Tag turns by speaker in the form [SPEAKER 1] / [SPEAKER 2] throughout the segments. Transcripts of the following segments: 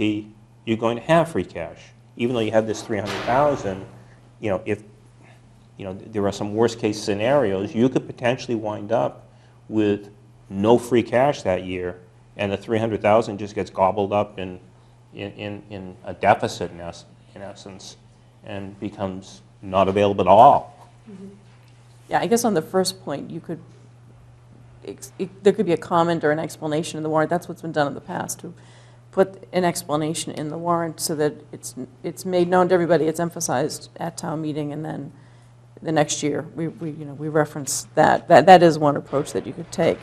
[SPEAKER 1] the, you're going to have free cash. Even though you have this 300,000, you know, if, you know, there are some worst-case scenarios, you could potentially wind up with no free cash that year, and the 300,000 just gets gobbled up in, in, in in a deficit in es- in essence, and becomes not available at all.
[SPEAKER 2] Yeah, I guess on the first point, you could, ex- it- there could be a comment or an explanation in the warrant. That's what's been done in the past, to put an explanation in the warrant so that it's, it's made known to everybody, it's emphasized at town meeting, and then the next year, we, we, you know, we reference that. That, that is one approach that you could take.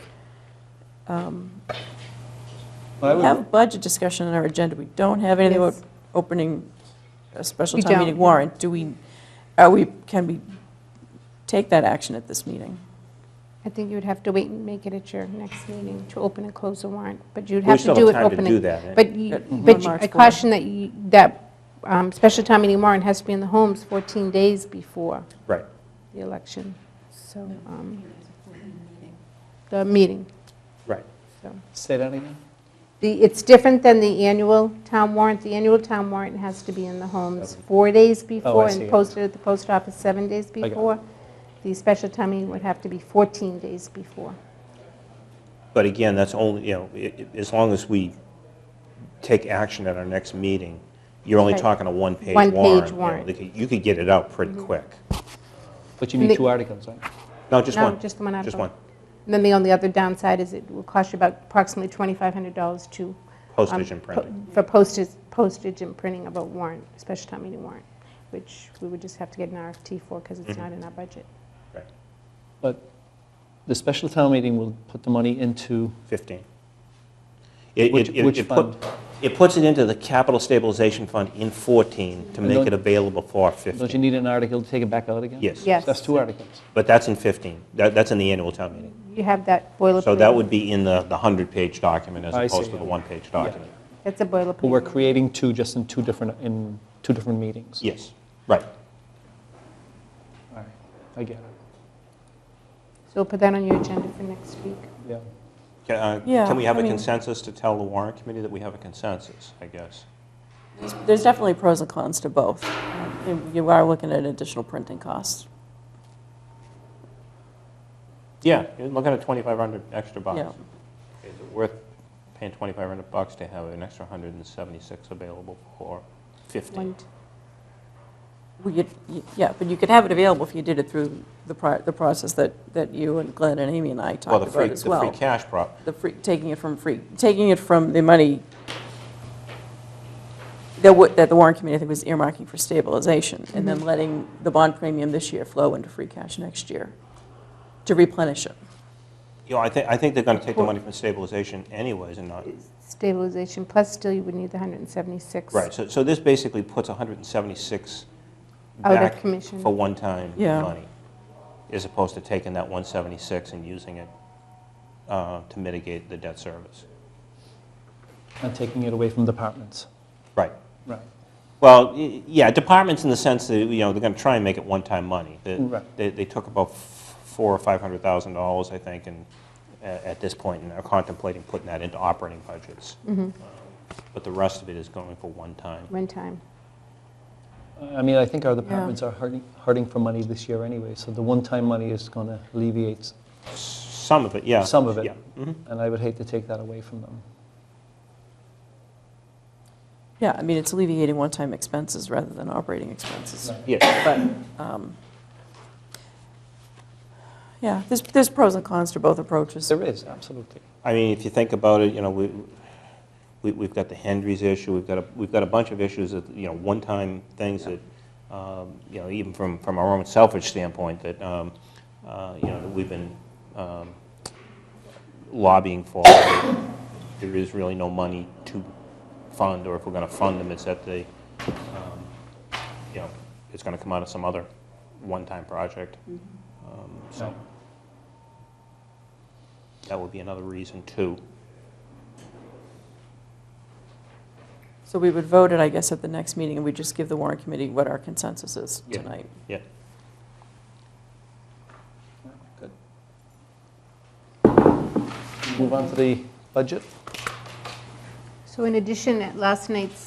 [SPEAKER 3] I
[SPEAKER 2] We
[SPEAKER 3] would-
[SPEAKER 2] have budget discussion on our agenda. We don't have anything about
[SPEAKER 4] Yes.
[SPEAKER 2] opening a special
[SPEAKER 4] We
[SPEAKER 2] town meeting
[SPEAKER 4] don't.
[SPEAKER 2] warrant. Do we, are we, can we take that action at this meeting?
[SPEAKER 4] I think you would have to wait and make it at your next meeting to open and close the warrant, but you'd
[SPEAKER 1] We
[SPEAKER 4] have to
[SPEAKER 1] still
[SPEAKER 4] do
[SPEAKER 1] have
[SPEAKER 4] it
[SPEAKER 1] time to
[SPEAKER 4] opening.
[SPEAKER 1] do that. eh?
[SPEAKER 4] But, you-
[SPEAKER 2] At- on
[SPEAKER 4] but you-
[SPEAKER 2] March
[SPEAKER 4] I
[SPEAKER 2] 4th.
[SPEAKER 4] caution that you, that um, special town meeting warrant has to be in the homes 14 days before
[SPEAKER 1] Right.
[SPEAKER 4] the election, so. um, The meeting,
[SPEAKER 1] Right.
[SPEAKER 4] so.
[SPEAKER 3] Say that again?
[SPEAKER 4] The, it's different than the annual town warrant. The annual town warrant has to be in the homes four days before
[SPEAKER 3] Oh, see.
[SPEAKER 4] and posted at the post office seven days
[SPEAKER 3] got it.
[SPEAKER 4] before. The special town meeting would have to be 14 days before.
[SPEAKER 1] But again, that's only, you know, i- i- as long as we take action at our next meeting, you're only
[SPEAKER 4] Right.
[SPEAKER 1] talking a one-page warrant.
[SPEAKER 4] One-page
[SPEAKER 1] you know,
[SPEAKER 4] warrant. Mm-hmm.
[SPEAKER 1] they could- You could get it out pretty quick.
[SPEAKER 3] But you
[SPEAKER 4] And
[SPEAKER 3] need
[SPEAKER 4] the-
[SPEAKER 3] two articles, right?
[SPEAKER 1] No, just
[SPEAKER 4] No,
[SPEAKER 1] one.
[SPEAKER 4] just the one
[SPEAKER 1] Just
[SPEAKER 4] article.
[SPEAKER 1] one.
[SPEAKER 4] And then the only other downside is it will cost you about approximately $2,500 to. um,
[SPEAKER 1] Postage and
[SPEAKER 4] po-
[SPEAKER 1] printing.
[SPEAKER 4] For postage, postage and printing of a warrant, special town meeting warrant, which we would just have to get an RFT for because
[SPEAKER 1] Mm-hmm.
[SPEAKER 4] it's not in our budget.
[SPEAKER 1] Right.
[SPEAKER 3] But the special town meeting will put the money into,
[SPEAKER 1] 15. It-
[SPEAKER 3] Which-
[SPEAKER 1] it- it-
[SPEAKER 3] which
[SPEAKER 1] it put-
[SPEAKER 3] fund?
[SPEAKER 1] It puts it into the capital stabilization fund in 14 to make
[SPEAKER 3] don't-
[SPEAKER 1] it available for
[SPEAKER 3] don't you
[SPEAKER 1] 15.
[SPEAKER 3] need an article to take it back out again?
[SPEAKER 1] Yes.
[SPEAKER 4] Yes.
[SPEAKER 3] That's two articles.
[SPEAKER 1] But that's in 15. That- That's in the annual town meeting.
[SPEAKER 4] You have that boilerplate.
[SPEAKER 1] So that would be in the the 100-page document as
[SPEAKER 3] I
[SPEAKER 1] opposed
[SPEAKER 3] see.
[SPEAKER 1] to the one-page document.
[SPEAKER 4] That's a boilerplate.
[SPEAKER 3] But we're creating two just in two different, in two different meetings.
[SPEAKER 1] Yes, right.
[SPEAKER 3] All right, I get it,
[SPEAKER 4] So we'll put that on your agenda for next week.
[SPEAKER 3] yeah.
[SPEAKER 1] Can uh,
[SPEAKER 2] Yeah,
[SPEAKER 1] can we have
[SPEAKER 2] I
[SPEAKER 1] a
[SPEAKER 2] mean-
[SPEAKER 1] consensus to tell the warrant committee that we have a consensus, I guess?
[SPEAKER 2] There's definitely pros and cons to both. Um, You- You are looking at additional printing costs.
[SPEAKER 1] Yeah, you're looking at 2,500 extra
[SPEAKER 2] Yeah.
[SPEAKER 1] bucks. Is it worth paying 2,500 bucks to have an extra 176 available for 15?
[SPEAKER 4] One-
[SPEAKER 2] We could- y- Yeah, but you could have it available if you did it through the pri- the process that that you and Glenn and Amy and I
[SPEAKER 1] Well,
[SPEAKER 2] talked
[SPEAKER 1] the free,
[SPEAKER 2] about as
[SPEAKER 1] the free
[SPEAKER 2] well.
[SPEAKER 1] cash prop,
[SPEAKER 2] The free, taking it from free, taking it from the money that wa- that the warrant committee, I think, was earmarking for stabilization, and
[SPEAKER 1] Mm-hmm.
[SPEAKER 2] then letting the bond premium this year flow into free cash next year to replenish it.
[SPEAKER 1] you know, I think, I think they're going to take the money from stabilization anyways and not,
[SPEAKER 4] Stabilization, plus still you would need the 176.
[SPEAKER 1] right, so, so this basically puts 176
[SPEAKER 4] Out of
[SPEAKER 1] back
[SPEAKER 4] commission.
[SPEAKER 1] for one-time
[SPEAKER 2] Yeah.
[SPEAKER 1] money, as opposed to taking that 176 and using it uh, to mitigate the debt service.
[SPEAKER 3] And taking it away from departments,
[SPEAKER 1] Right.
[SPEAKER 3] right.
[SPEAKER 1] Well, y- yeah, departments in the sense that, you know, they're going to try and make it one-time money. They-
[SPEAKER 3] Mm, Right.
[SPEAKER 1] They, they took about f- four or five hundred thousand dollars, I think, and a- at this point, and are contemplating putting that into operating budgets. But the rest of it is going for one time.
[SPEAKER 4] Mm-hmm. One time.
[SPEAKER 3] I mean, I think our departments are hurting, hurting for money this year anyway, so the one-time money is going to alleviate s-
[SPEAKER 1] Some of it, yeah.
[SPEAKER 3] some of it.
[SPEAKER 1] Yeah. Mhm.
[SPEAKER 3] And I would hate to take that away from them.
[SPEAKER 2] Yeah, I mean, it's alleviating one-time expenses rather than operating expenses.
[SPEAKER 1] Yes,
[SPEAKER 2] but, um, yeah, there's, there's pros and cons to both approaches.
[SPEAKER 3] There is, absolutely.
[SPEAKER 1] I mean, if you think about it, you know, we, we, we've got the Hendry's issue, we've got a, we've got a bunch of issues that, you know, one-time things that, um, you know, even from, from our own selfish standpoint, that, um, uh, you know, that we've been um, lobbying for. There is really no money to fund, or if we're gonna fund them, it's at the, um, you know, it's gonna come out of some other one-time project. Um, So,
[SPEAKER 3] Right.
[SPEAKER 1] that would be another reason, too.
[SPEAKER 2] So we would vote it, I guess, at the next meeting, and we just give the warrant committee what our consensus is
[SPEAKER 1] Yeah.
[SPEAKER 2] tonight.
[SPEAKER 1] Yeah.
[SPEAKER 3] Good. Move on to the budget.
[SPEAKER 4] So So in addition, at last night's